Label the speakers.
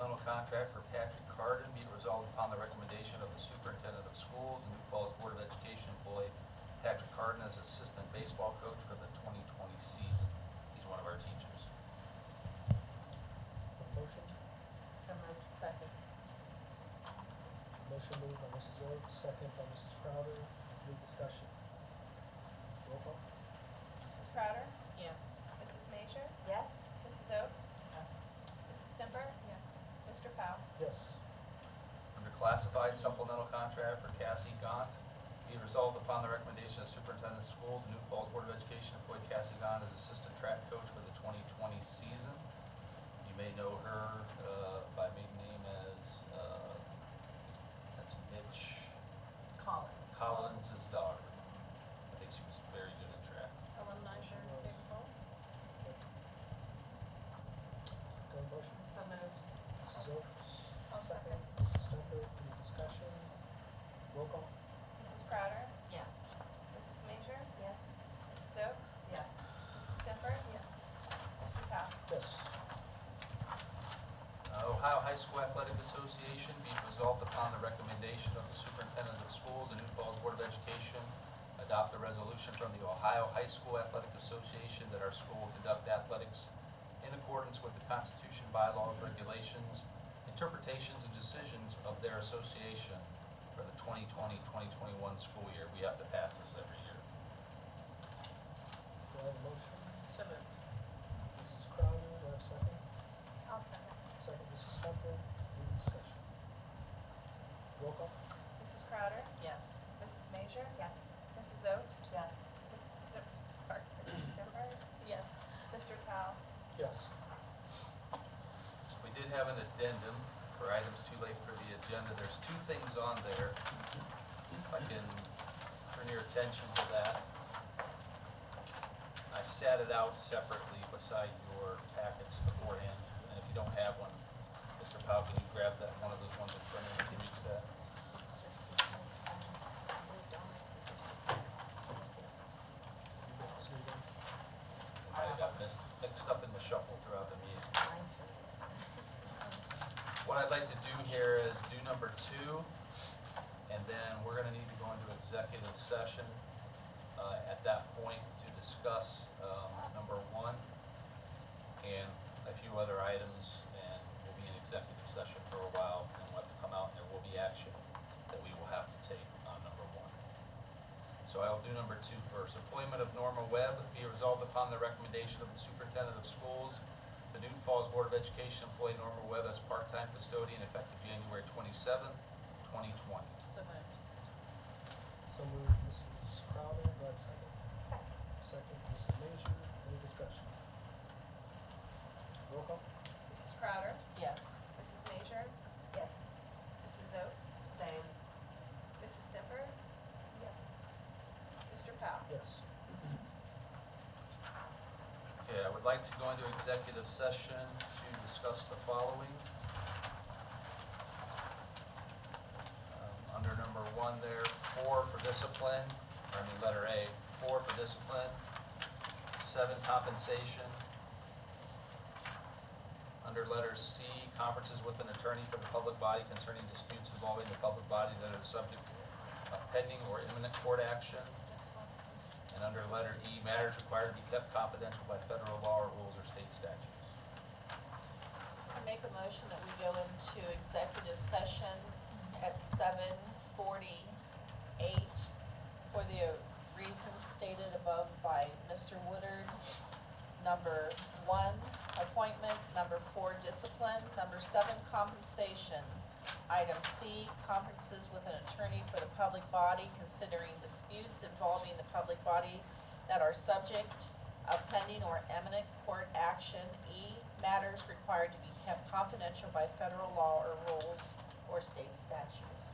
Speaker 1: contract for Patrick Carden be it resolved upon the recommendation of the superintendent of schools and New Falls Board of Education employ Patrick Carden as assistant baseball coach for the 2020 season. He's one of our teachers.
Speaker 2: A motion?
Speaker 3: So moved. Second.
Speaker 2: Motion moved by Mrs. Oak, second by Mrs. Crowder. Any discussion? Roll call?
Speaker 4: Mrs. Crowder,
Speaker 3: Yes.
Speaker 4: Mrs. Major,
Speaker 3: Yes?
Speaker 4: Mrs. Oaks,
Speaker 3: Yes.
Speaker 4: Mrs. Stimper,
Speaker 3: Yes.
Speaker 4: Mr. Powell.
Speaker 2: Yes.
Speaker 1: Under classified supplemental contract for Cassie Gant, be it resolved upon the recommendation of superintendent of schools, New Falls Board of Education employed Cassie Gant as assistant track coach for the 2020 season. You may know her uh, by maiden name as, uh, that's Mitch
Speaker 3: Collins.
Speaker 1: Collins' daughter. I think she was very good at track.
Speaker 4: Alumni for Big Falls.
Speaker 2: Go to motion?
Speaker 3: So moved.
Speaker 2: Mrs. Oaks?
Speaker 4: I'll second.
Speaker 2: Mrs. Stemper, any discussion? Roll call?
Speaker 4: Mrs. Crowder,
Speaker 3: Yes.
Speaker 4: Mrs. Major,
Speaker 3: Yes.
Speaker 4: Mrs. Oaks,
Speaker 3: Yes.
Speaker 4: Mrs. Stimper,
Speaker 3: Yes.
Speaker 4: Mr. Powell.
Speaker 2: Yes.
Speaker 1: Uh, Ohio High School Athletic Association be it resolved upon the recommendation of the superintendent of schools and New Falls Board of Education, adopt a resolution from the Ohio High School Athletic Association that our school will conduct athletics in accordance with the Constitution, bylaws, regulations, interpretations, and decisions of their association for the 2020-2021 school year. We have to pass this every year.
Speaker 2: Do I have a motion?
Speaker 3: So moved.
Speaker 2: Mrs. Crowder, do I have a second?
Speaker 4: I'll second.
Speaker 2: Second, Mrs. Stemper, any discussion? Roll call?
Speaker 4: Mrs. Crowder,
Speaker 3: Yes.
Speaker 4: Mrs. Major,
Speaker 3: Yes.
Speaker 4: Mrs. Oaks,
Speaker 3: Yes.
Speaker 4: Mrs. Stim- sorry, Mrs. Stimper, yes, Mr. Powell.
Speaker 2: Yes.
Speaker 1: We did have an addendum for items too late for the agenda. There's two things on there. If I can turn your attention to that. I sat it out separately beside your packets beforehand, and if you don't have one, Mr. Powell, can you grab that, one of those ones in front of you, can you reach that?
Speaker 2: You got it, so you got it.
Speaker 1: It might have got missed, mixed up in the shuffle throughout the meeting. What I'd like to do here is do number two, and then we're gonna need to go into executive session uh, at that point to discuss um, number one and a few other items, and we'll be in executive session for a while, and we'll have to come out, and there will be action that we will have to take on number one. So I will do number two first. Appointment of Norma Webb be resolved upon the recommendation of the superintendent of schools. The Newton Falls Board of Education employ Norma Webb as part-time custodian effective January twenty-seventh, twenty twenty.
Speaker 3: So moved.
Speaker 2: So moved, Mrs. Crowder, do I have a second?
Speaker 4: Second.
Speaker 2: Second, Mrs. Major, any discussion? Roll call?
Speaker 4: Mrs. Crowder,
Speaker 3: Yes.
Speaker 4: Mrs. Major,
Speaker 3: Yes.
Speaker 4: Mrs. Oaks,
Speaker 3: Staying.
Speaker 4: Mrs. Stimper, yes, Mr. Powell.
Speaker 2: Yes.
Speaker 1: Okay, I would like to go into executive session to discuss the following. Um, Under number one there, four for discipline, or I mean, letter A, four for discipline, seven compensation. Under letter C, conferences with an attorney for the public body concerning disputes involving the public body that are the subject of pending or imminent court action. And under letter E, matters required to be kept confidential by federal law or rules or state statutes.
Speaker 5: I make a motion that we go into executive session at seven forty-eight for the reasons stated above by Mr. Woodard. Number one, appointment, number four, discipline, number seven, compensation. Item C, conferences with an attorney for the public body considering disputes involving the public body that are subject of pending or imminent court action. E, matters required to be kept confidential by federal law or rules or state statutes.